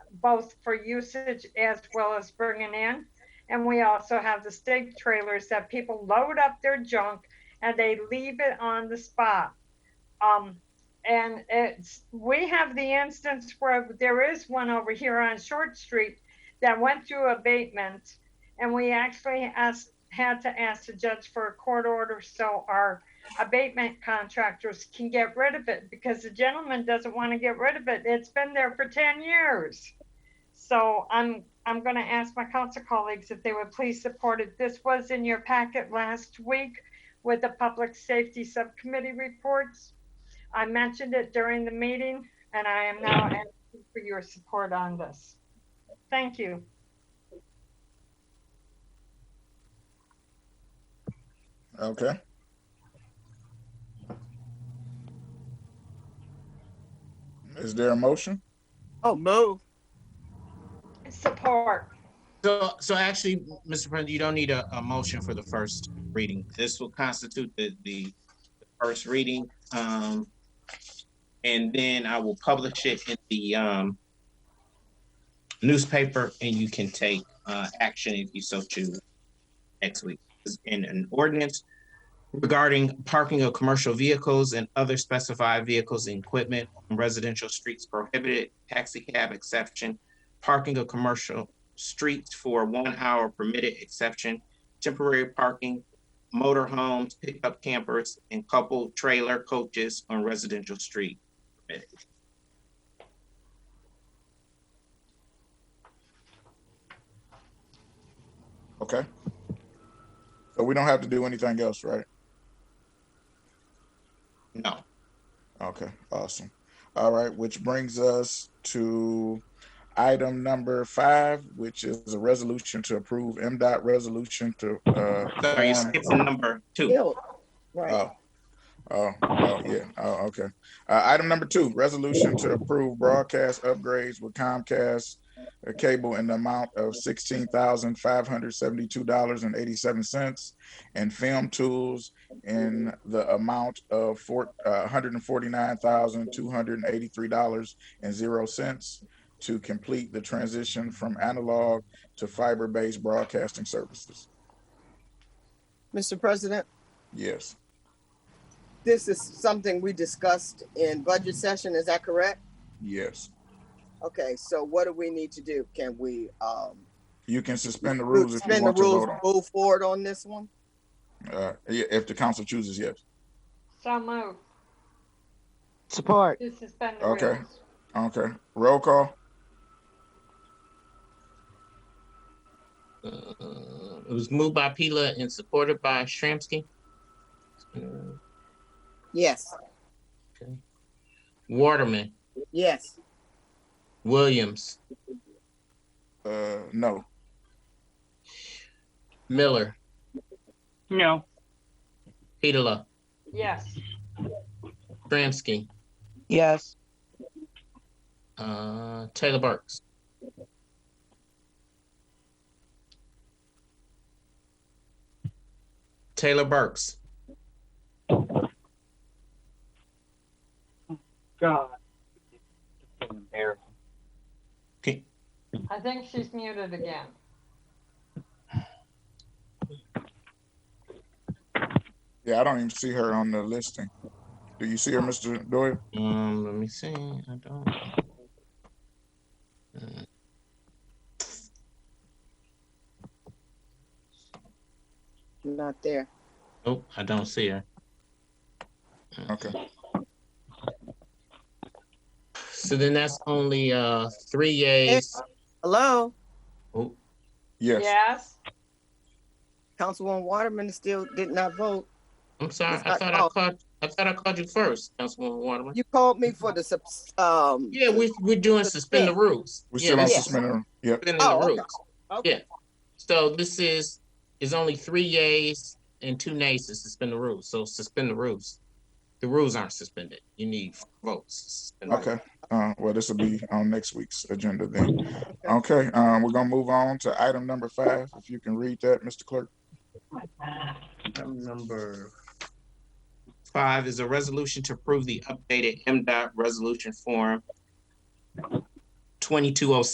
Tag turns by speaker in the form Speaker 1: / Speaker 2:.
Speaker 1: both for usage as well as bringing in. And we also have the state trailers that people load up their junk and they leave it on the spot. Um, and it's, we have the instance where there is one over here on Short Street that went through abatement. And we actually asked, had to ask the judge for a court order so our abatement contractors can get rid of it because the gentleman doesn't want to get rid of it. It's been there for ten years. So I'm, I'm gonna ask my council colleagues if they would please support it. This was in your packet last week with the Public Safety Subcommittee reports. I mentioned it during the meeting and I am now asking for your support on this. Thank you.
Speaker 2: Okay. Is there a motion?
Speaker 3: Oh, move.
Speaker 1: Support.
Speaker 4: So, so actually, Mr. President, you don't need a, a motion for the first reading. This will constitute the, the first reading. Um, and then I will publish it in the, um, newspaper and you can take, uh, action if you so choose next week. In an ordinance regarding parking of commercial vehicles and other specified vehicles and equipment on residential streets prohibited, taxi cab exception, parking of commercial streets for one hour permitted exception, temporary parking, motor homes, pickup campers, and couple trailer coaches on residential street.
Speaker 2: Okay. So we don't have to do anything else, right?
Speaker 4: No.
Speaker 2: Okay, awesome. All right, which brings us to item number five, which is a resolution to approve MDOT resolution to, uh,
Speaker 4: Sorry, you
Speaker 2: form-
Speaker 4: skipped to number two.
Speaker 3: Right.
Speaker 2: Oh, oh, oh, yeah, oh, okay. Uh, item number two, resolution to approve broadcast upgrades with Comcast uh, cable in the amount of sixteen thousand five hundred seventy-two dollars and eighty-seven cents and film tools in the amount of four, uh, hundred and forty-nine thousand two hundred and eighty-three dollars and zero cents to complete the transition from analog to fiber-based broadcasting services.
Speaker 3: Mr. President,
Speaker 2: Yes,
Speaker 3: this is something we discussed in budget session. Is that correct?
Speaker 2: yes.
Speaker 3: Okay, so what do we need to do? Can we, um,
Speaker 2: You can suspend the rules if you
Speaker 3: suspend the
Speaker 2: want to
Speaker 3: rules,
Speaker 2: vote on. it.
Speaker 3: move forward on this one?
Speaker 2: Uh, i- if the council chooses, yes.
Speaker 1: So moved.
Speaker 5: Support.
Speaker 1: To suspend the
Speaker 2: Okay.
Speaker 1: rules.
Speaker 2: Okay. Roll call.
Speaker 4: Uh, It was moved by Pila and supported by Shramsky. Uh,
Speaker 3: Yes,
Speaker 4: Waterman,
Speaker 3: yes,
Speaker 4: Williams,
Speaker 2: Uh, no.
Speaker 4: Miller,
Speaker 6: No,
Speaker 4: Pila,
Speaker 1: Yes.
Speaker 4: Shramsky,
Speaker 5: Yes.
Speaker 4: uh, Taylor Burks. Taylor Burks.
Speaker 6: God. It's embarrassing.
Speaker 1: I think she's muted again.
Speaker 2: Yeah, I don't even see her on the listing. Do you see her, Mr. Doyle?
Speaker 4: Um, let me see. I don't. Uh,
Speaker 3: not there.
Speaker 4: Nope, I don't see her.
Speaker 2: Okay.
Speaker 4: So then that's only uh three yays.
Speaker 3: Hello,
Speaker 4: Oh,
Speaker 2: Yes.
Speaker 1: Yes.
Speaker 3: Councilwoman Waterman still did not vote.
Speaker 4: I'm sorry.
Speaker 3: It's
Speaker 4: I
Speaker 3: not
Speaker 4: thought I
Speaker 3: called.
Speaker 4: called. I thought I called you first, Councilwoman Waterman.
Speaker 3: You called me for the subs, um.
Speaker 4: Yeah, we we're doing suspend the rules.
Speaker 2: We
Speaker 4: Yeah,
Speaker 2: still on
Speaker 4: this
Speaker 3: yeah.
Speaker 4: is
Speaker 2: suspending. Yep.
Speaker 4: suspending
Speaker 3: Oh,
Speaker 4: the
Speaker 3: okay.
Speaker 4: rules.
Speaker 3: Okay.
Speaker 4: So this is is only three yays and two nays to suspend the rules. So suspend the rules. The rules aren't suspended. You need votes. to suspend the rules.
Speaker 2: Okay. Uh, well, this will be on next week's agenda then. Okay. Um, we're gonna move on to item number five. If you can read that, Mr. Clerk.
Speaker 4: Item number five is a resolution to approve the updated MDOT resolution form twenty-two oh